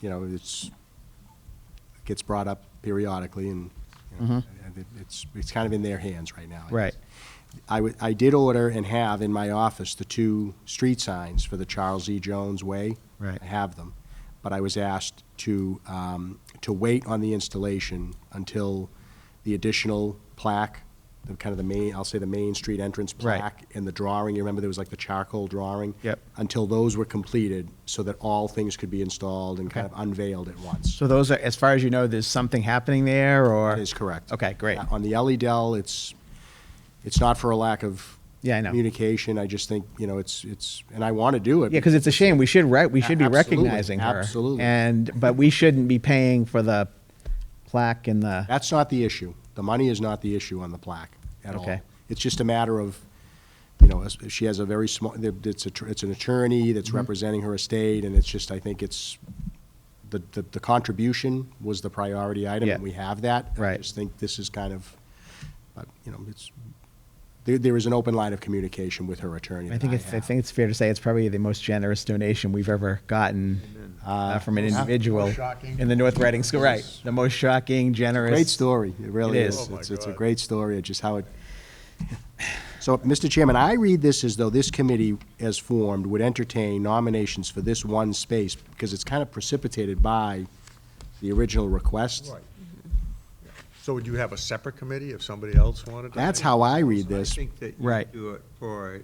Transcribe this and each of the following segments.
you know, it's, gets brought up periodically, and, you know, and it- it's, it's kind of in their hands right now. Mm-hmm. Right. I would, I did order and have in my office the two street signs for the Charles E. Jones Way. Right. I have them, but I was asked to, um, to wait on the installation until the additional plaque, the kind of the main, I'll say the main street entrance Right. plaque and the drawing, you remember there was like the charcoal drawing? Yep. Until those were completed, so that all things could be installed and kind Okay. of unveiled at once. So those are, as far as you know, there's something happening there, or? That is correct. Okay, great. Uh, On the Ellie Dell, it's, it's not for a lack of Yeah, I know. communication. I just think, you know, it's, it's, and I want to do it. Yeah, because it's a shame. We should right. We A- should be absolutely, recognizing her. absolutely. And but we shouldn't be paying for the plaque and the. That's not the issue. The money is not the issue on the plaque at all. Okay. It's just a matter of, you know, as- she has a very small, it's a, tr- it's an attorney Mm-hmm. that's representing her estate, and it's just, I think it's, the, the- the contribution was the priority item, and Yeah. we have that. I Right. just think this is kind of, but, you know, it's, there, there is an open line of communication with her attorney I that think it's, I have. think it's fair to say it's probably the most generous donation we've ever gotten uh, from an yeah. individual Most shocking. in the North Reading School. Right, the most shocking, generous. Great story, it really It is. is. Oh, my It's, it's a God. great story, it's just how it, so, Mr. Chairman, I read this as though this committee, as formed, would entertain nominations for this one space, because it's kind of precipitated by the original request. Right. So would you have a separate committee if somebody else wanted to? That's how I read I this. think that you Right. do it for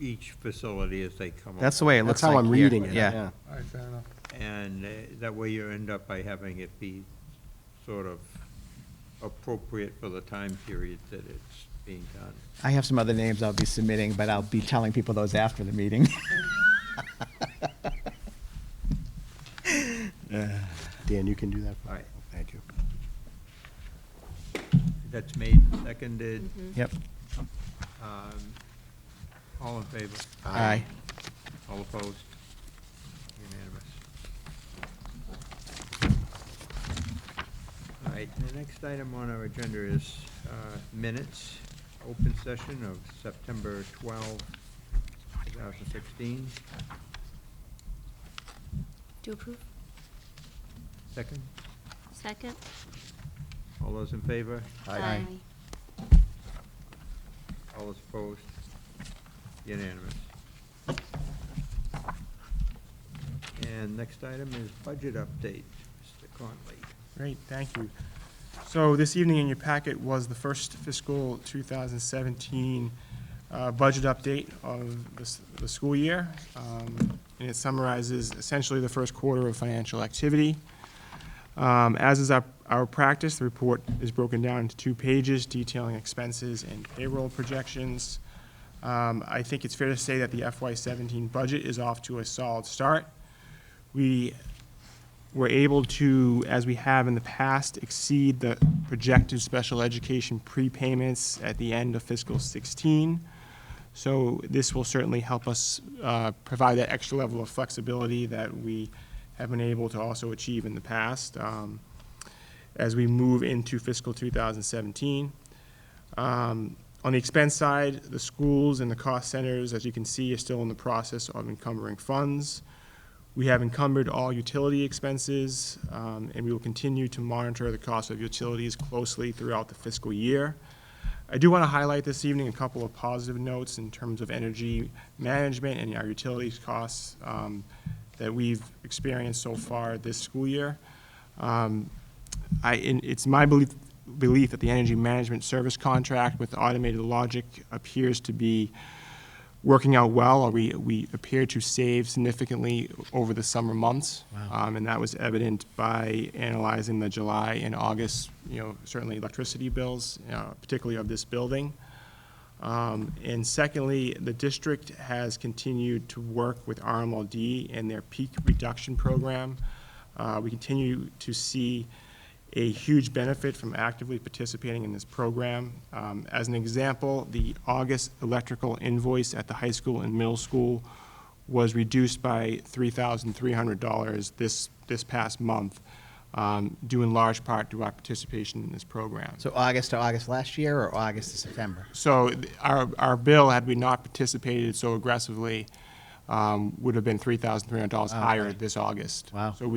each facility as they come along. That's the way it That's looks. how like I'm here. reading it, Yeah. yeah. All right, fair enough. And uh, that way you end up by having it be sort of appropriate for the time period that it's being done. I have some other names I'll be submitting, but I'll be telling people those after the meeting. Dan, you can do that? for me? All right. Thank you. That's made, seconded, yep. um, all in favor? Aye. All opposed? Unanimous. All right, the next item on our agenda is uh, minutes, open session of September 12, 2016. Do approve? Second, Second? all those in favor? All those opposed? Unanimous. And next item is budget update, Mr. Conley. Great, thank you. So this evening in your packet was the first fiscal 2017 uh, budget update of the s- the school year, um, and it summarizes essentially the first quarter of financial activity. Um, As is our our practice, the report is broken down into two pages detailing expenses and payroll projections. Um, I think it's fair to say that the FY17 budget is off to a solid start. We we're able to, as we have in the past, exceed the projected special education prepayments at the end of fiscal 16. So this will certainly help us uh, provide that extra level of flexibility that we have been able to also achieve in the past um, as we move into fiscal 2017. Um, On the expense side, the schools and the cost centers, as you can see, are still in the process of encumbering funds. We have encumbered all utility expenses, um, and we will continue to monitor the cost of utilities closely throughout the fiscal year. I do want to highlight this evening a couple of positive notes in terms of energy management and our utilities costs um, that we've experienced so far this school year. Um, I, and it's my belief, belief that the energy management service contract with automated logic appears to be working out well, or we, we appear to save significantly over the summer months. Um, and that was evident by analyzing the July and August, you know, certainly electricity bills, uh, particularly of this building. Um, and secondly, the district has continued to work with RMLD and their peak reduction program. Uh, we continue to see a huge benefit from actively participating in this program. Um, as an example, the August electrical invoice at the high school and middle school was reduced by three thousand three hundred dollars this, this past month, um, due in large part to our participation in this program. So August to August last year, or August to September. So th- our, our bill, had we not participated so aggressively, um, would have been $3,300 higher this August. Wow. So we